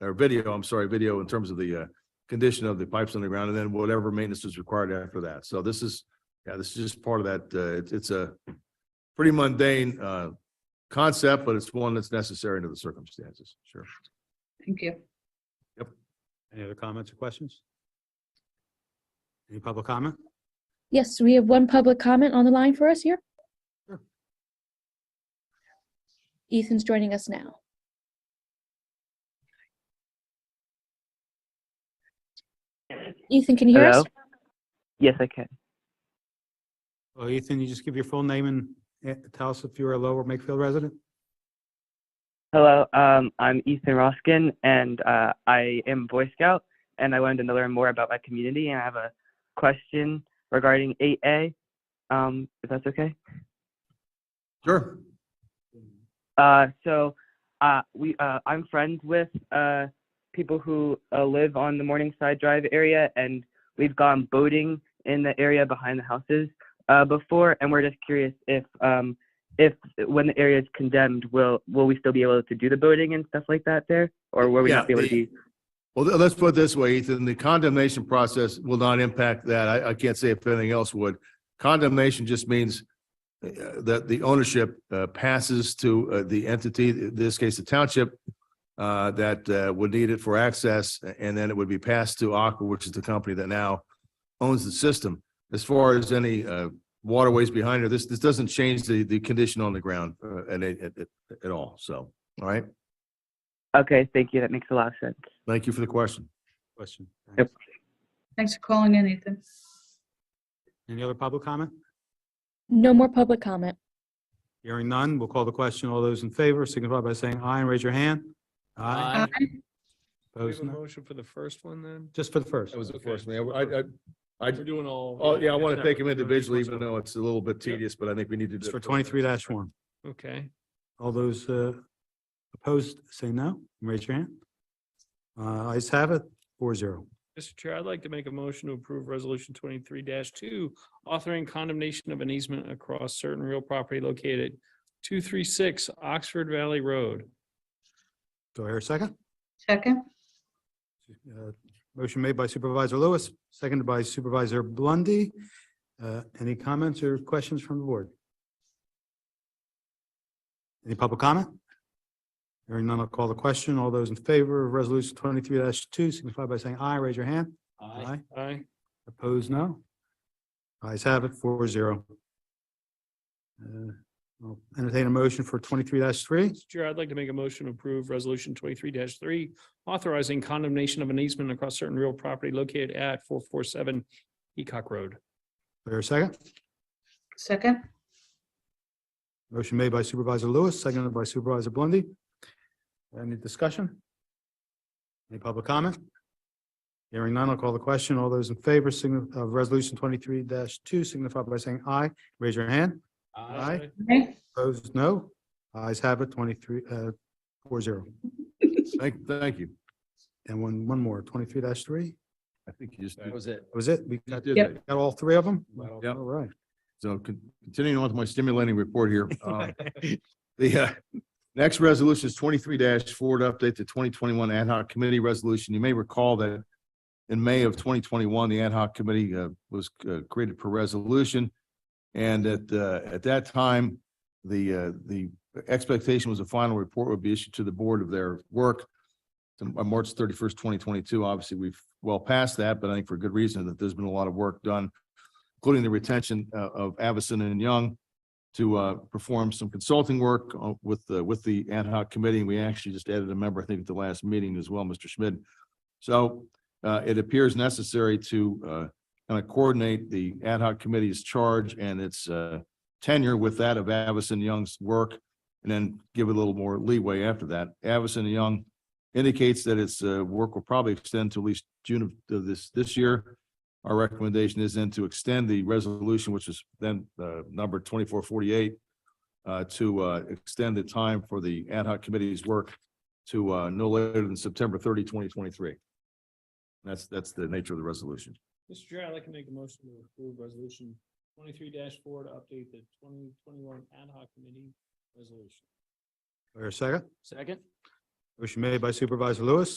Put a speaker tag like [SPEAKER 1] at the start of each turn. [SPEAKER 1] or video, I'm sorry, video in terms of the uh condition of the pipes underground and then whatever maintenance is required after that. So this is, yeah, this is just part of that. Uh, it's, it's a pretty mundane uh concept, but it's one that's necessary under the circumstances. Sure.
[SPEAKER 2] Thank you.
[SPEAKER 3] Any other comments or questions? Any public comment?
[SPEAKER 4] Yes, we have one public comment on the line for us here.
[SPEAKER 3] Sure.
[SPEAKER 4] Ethan's joining us now. Ethan, can you hear us?
[SPEAKER 5] Hello? Yes, I can.
[SPEAKER 3] Well, Ethan, you just give your full name and eh, tell us if you're a Lower Makefield resident?
[SPEAKER 5] Hello, um, I'm Ethan Roskin, and uh, I am Boy Scout, and I wanted to learn more about my community, and I have a question regarding 8A, um, if that's okay.
[SPEAKER 1] Sure.
[SPEAKER 5] Uh, so uh, we, uh, I'm friends with uh, people who uh, live on the Morningside Drive area, and we've gone boating in the area behind the houses uh, before, and we're just curious if, um, if when the area is condemned, will will we still be able to do the boating and stuff like that there, or will we
[SPEAKER 1] Yeah,
[SPEAKER 5] not be able
[SPEAKER 1] the-
[SPEAKER 5] to? Be,
[SPEAKER 1] Well, th- let's put it this way, Ethan, the condemnation process will not impact that. I, I can't say if anything else would. Condemnation just means uh, that the ownership uh, passes to uh, the entity, in this case, the township, uh, that uh, would need it for access, and then it would be passed to Aqua, which is the company that now owns the system. As far as any uh, waterways behind it, this, this doesn't change the, the condition on the ground uh, at, at, at- at all. So, all right,
[SPEAKER 5] okay, thank you. That makes a lot of sense.
[SPEAKER 1] thank you for the question.
[SPEAKER 3] Question. thanks.
[SPEAKER 5] Yep.
[SPEAKER 2] Thanks for calling in, Ethan.
[SPEAKER 3] Any other public comment?
[SPEAKER 4] No more public comment.
[SPEAKER 3] Hearing none, we'll call the question. All those in favor signify by saying aye and raise your hand.
[SPEAKER 2] Aye.
[SPEAKER 6] Do we have
[SPEAKER 3] Opposed,
[SPEAKER 6] a
[SPEAKER 3] no.
[SPEAKER 6] motion for the first one then?
[SPEAKER 3] Just for the first.
[SPEAKER 1] That was the
[SPEAKER 6] Okay.
[SPEAKER 1] first, man. I, I, I,
[SPEAKER 6] We're doing all.
[SPEAKER 1] oh, yeah, I want to
[SPEAKER 6] Yeah.
[SPEAKER 1] take them individually,
[SPEAKER 6] Yeah.
[SPEAKER 1] even though it's a little bit tedious, but I think we need to. do
[SPEAKER 3] It's
[SPEAKER 1] it
[SPEAKER 3] for twenty-three one.
[SPEAKER 6] Okay,
[SPEAKER 3] All those uh, opposed, say no. and Raise your hand. Uh, Ayes have it, four zero.
[SPEAKER 6] Mr. Chair, I'd like to make a motion to approve resolution twenty-three two, authoring condemnation of an easement across certain real property located two, three, six Oxford Valley Road.
[SPEAKER 3] Do I hear a second?
[SPEAKER 2] Second?
[SPEAKER 3] Uh, Motion made by Supervisor Lewis, seconded by Supervisor Blondie. Uh, Any comments or questions from the board? Any public comment? Hearing none, I'll call the question. All those in favor of resolution twenty-three two signify by saying aye, raise your hand. Aye.
[SPEAKER 6] Aye.
[SPEAKER 3] Opposed, no. Ayes have it, four zero. Uh, Entertain a motion for twenty-three three.
[SPEAKER 6] Mr. Chair, I'd like to make a motion to approve resolution twenty-three three, authorizing condemnation of an easement across certain real property located at four, four, seven Ecock Road.
[SPEAKER 3] There a second?
[SPEAKER 2] Second?
[SPEAKER 3] Motion made by Supervisor Lewis, seconded by Supervisor Blondie. Any discussion? Any public comment? Hearing none, I'll call the question. All those in favor signi- of resolution twenty-three two signify by saying aye. Raise your hand. Aye.
[SPEAKER 2] Aye.
[SPEAKER 3] Opposed, no. Ayes have it, twenty-three, uh, four zero.
[SPEAKER 1] Thank, thank you.
[SPEAKER 3] And one, one more, twenty-three three.
[SPEAKER 1] I think you just,
[SPEAKER 6] That
[SPEAKER 1] was it.
[SPEAKER 3] That was it. We
[SPEAKER 1] That
[SPEAKER 3] got
[SPEAKER 1] did
[SPEAKER 2] Yep.
[SPEAKER 1] it.
[SPEAKER 3] Got all three of them?
[SPEAKER 1] Wow.
[SPEAKER 3] All right.
[SPEAKER 1] So con- continuing on with my stimulating report here. um, The uh, next resolution is twenty-three four to update the twenty twenty-one ad hoc committee resolution. You may recall that in May of twenty twenty-one, the ad hoc committee uh, was uh, created per resolution. And at, uh, at that time, the, uh, the expectation was a final report would be issued to the board of their work on March thirty-first, twenty twenty-two. Obviously, we've well past that, but I think for good reason that there's been a lot of work done including the retention uh, of Avison and Young to uh, perform some consulting work uh, with the, with the ad hoc committee. We actually just added a member, I think, at the last meeting as well, Mr. Schmidt. So uh, it appears necessary to kind of coordinate the ad hoc committee's charge and its uh, tenure with that of Avison Young's work, and then give it a little more leeway after that. Avison Young indicates that its uh, work will probably extend to at least June of- of this, this year. Our recommendation is then to extend the resolution, which is then uh, number twenty-four forty-eight, to uh, extend the time for the ad hoc committee's work to uh, no later than September 30, 2023. That's, that's the nature of the resolution.
[SPEAKER 6] Mr. Chair, I'd like to make a motion to approve resolution twenty-three four to update the twenty twenty-one ad hoc committee resolution.
[SPEAKER 3] There a second?
[SPEAKER 6] Second?
[SPEAKER 3] Motion made by Supervisor Lewis,